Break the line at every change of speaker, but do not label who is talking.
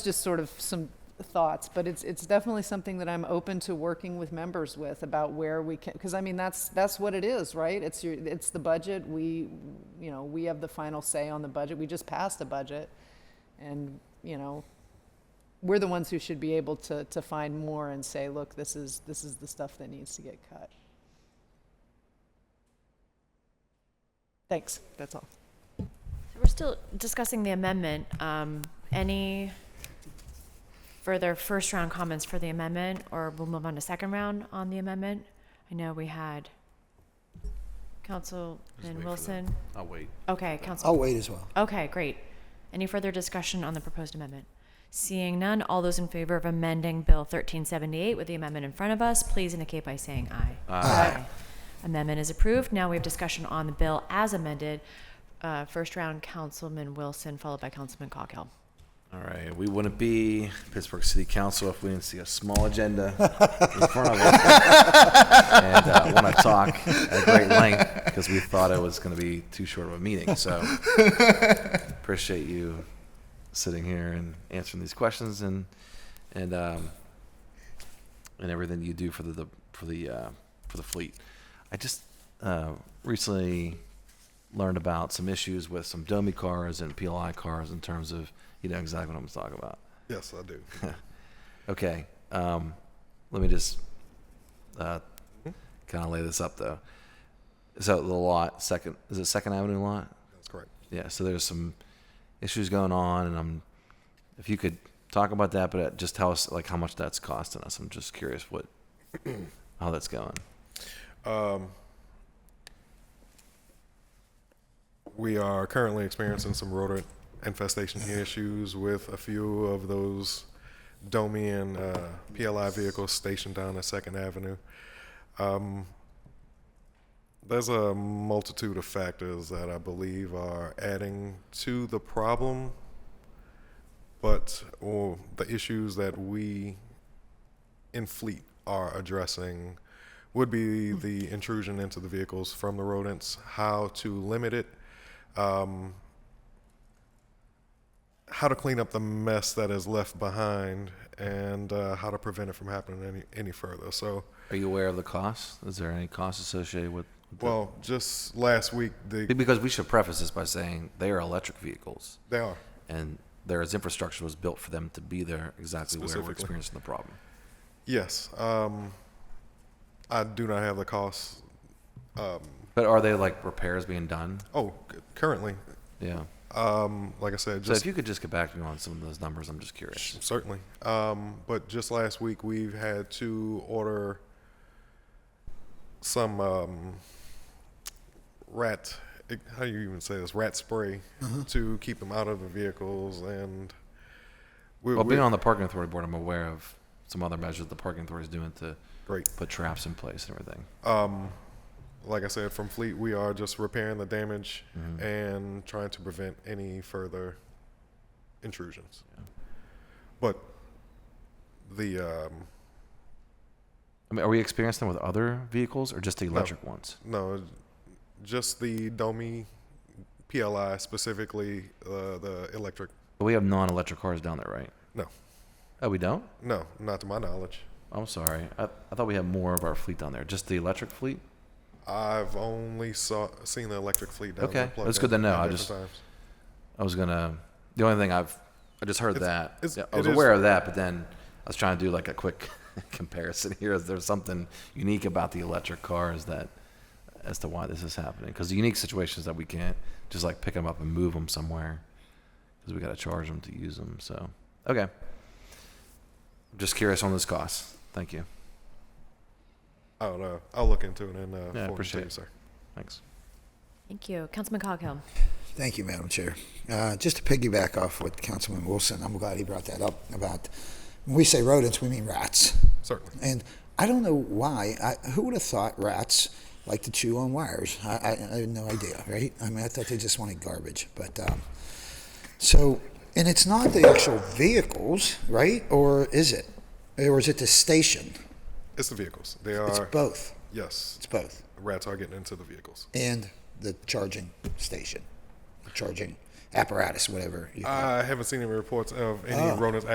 just sort of some thoughts, but it's, it's definitely something that I'm open to working with members with about where we can, because I mean, that's, that's what it is, right? It's your, it's the budget, we, you know, we have the final say on the budget, we just passed a budget, and, you know, we're the ones who should be able to, to find more and say, look, this is, this is the stuff that needs to get cut. Thanks, that's all.
So We're still discussing the amendment. Um, Any further first-round comments for the amendment, or we'll move on to second round on the amendment? I know we had
wait for
Councilman
that.
Wilson.
I'll wait.
Okay,
I'll
Council,
wait as well.
okay, great. Any further discussion on the proposed amendment? Seeing none, all those in favor of amending Bill 1378 with the amendment in front of us, please indicate by saying aye. Aye. Amendment is approved. Now we have discussion on the bill as amended. Uh, First round, Councilman Wilson, followed by Councilman Coghill.
All right, we wouldn't be Pittsburgh City Council if we didn't see a small agenda in front of us and uh, want to talk at great length because we thought it was going to be too short of a meeting. So appreciate you sitting here and answering these questions and and um, and everything you do for the, the for the uh, for the fleet. I just uh, recently learned about some issues with some dummy cars and PLI cars in terms of you know exactly what I'm talking about.
Yes, I do.
Okay, um, let me just uh, kind of lay this up though. So the lot second is it Second Avenue lot?
That's correct.
Yeah. So there's some issues going on, and I'm if you could talk about that, but uh, just tell us like how much that's costing us. I'm just curious what how that's going.
We are currently experiencing some rodent infestation issues with a few of those Domian uh, PLI vehicles stationed down at Second Avenue. Um, there's a multitude of factors that I believe are adding to the problem, but or the issues that we in fleet are addressing would be the intrusion into the vehicles from the rodents, how to limit it, um, how to clean up the mess that is left behind, and uh, how to prevent it from happening any, any further. So,
Are you aware of the cost? Is there any cost associated with? with that?
well, just last week, the,
because we should preface this by saying they are electric vehicles.
they are.
and there's infrastructure was built for them to be there exactly where we're
Specifically.
experiencing the problem.
Yes. Um, I do not have the costs. Um,
But are they like repairs being done?
oh, c- currently,
Yeah.
um, like I said,
So
just
if you could just get back to me on some of those numbers, I'm just curious.
Certainly. Um, but just last week, we've had to order some um, rat. How do you even say this? Rat spray to keep them out of the vehicles, and we,
Well,
we,
being on the parking authority board, I'm aware of some other measures the parking authority is doing to
great.
put traps in place and everything.
um, Like I said, from Fleet, we are just repairing the damage
Mm-hmm.
and trying to prevent any further intrusions. But the um,
I mean, are we experiencing them with other vehicles or just the electric ones?
No, just the Domi PLI specifically, uh, the electric.
But we have non-electric cars down there, right?
No,
Oh, we don't.
no, not to my knowledge.
I'm sorry. I, I thought we had more of our fleet down there. Just the electric fleet.
I've only saw seen the electric fleet down there.
Okay,
plugged
that's good
in
to know.
at
I
different
just-
times.
I was gonna. The only thing I've, I just heard
It's-
that.
it's-
Yeah, I was
it is-
aware of that, but then I was trying to do like a quick comparison here. Is there something unique about the electric cars that, as to why this is happening? Because the unique situations that we can't just like pick them up and move them somewhere, because we got to charge them to use them. So okay, just curious on this cost. Thank you.
I don't know. I'll look into it and uh, forward it to
appreciate
you,
it.
sir.
Thanks.
Thank you. Councilman Coghill.
Thank you, Madam Chair. Uh, Just to piggyback off what Councilman Wilson, I'm glad he brought that up about, when we say rodents, we mean rats.
Certainly.
And I don't know why, I, who would have thought rats like to chew on wires? I, I, I had no idea, right? I mean, I thought they just wanted garbage, but, um, so, and it's not the actual vehicles, right? Or is it? Or is it the station?
It's the vehicles. They
It's
are.
both,
Yes,
it's both.
rats are getting into the vehicles.
and the charging station, the charging apparatus, whatever. You call it.
Oh.
I haven't seen any reports of any rodents